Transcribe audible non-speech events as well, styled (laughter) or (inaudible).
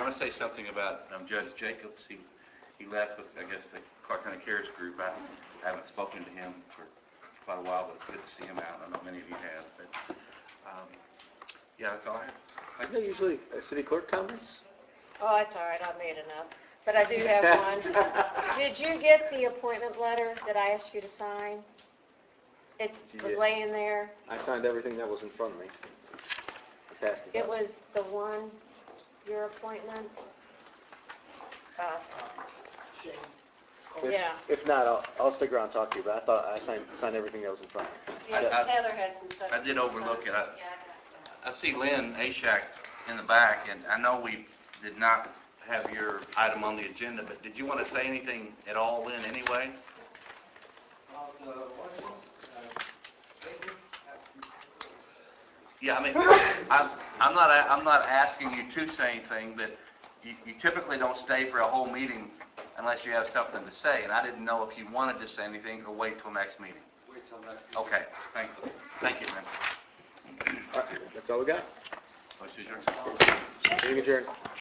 want to say something about um, Judge Jacobs. He, he left with, I guess, the Clark County Cares Group. I haven't spoken to him for quite a while, but it's good to see him out. I know many of you have, but, um, yeah, that's all I have. Isn't it usually a city clerk comments? Oh, that's all right, I made enough, but I do (laughs) have one. Did you get the appointment letter that I asked you to sign? It was Yeah. laying there, I signed everything that was in front of me. I passed it it out. was the one, your appointment? Uh, If- yeah. If not, I'll, I'll stick around and talk to you, but I thought I signed, signed everything that was in front of me. I- I- Heather had some stuff. I did overlook it. I I see Lynn Ashak in the back, and I know we did not have your item on the agenda, but did you want to say anything at all, Lynn, anyway? uh, Yeah, I mean, I'm, I'm not, a- I'm not asking you to say anything, but you you typically don't stay for a whole meeting unless you have something to say, and I didn't know if you wanted to say anything or wait till next meeting. Wait till next. Okay, thank, thank you, Lynn. All right, That's all we got. Motion adjourned. Meeting adjourned.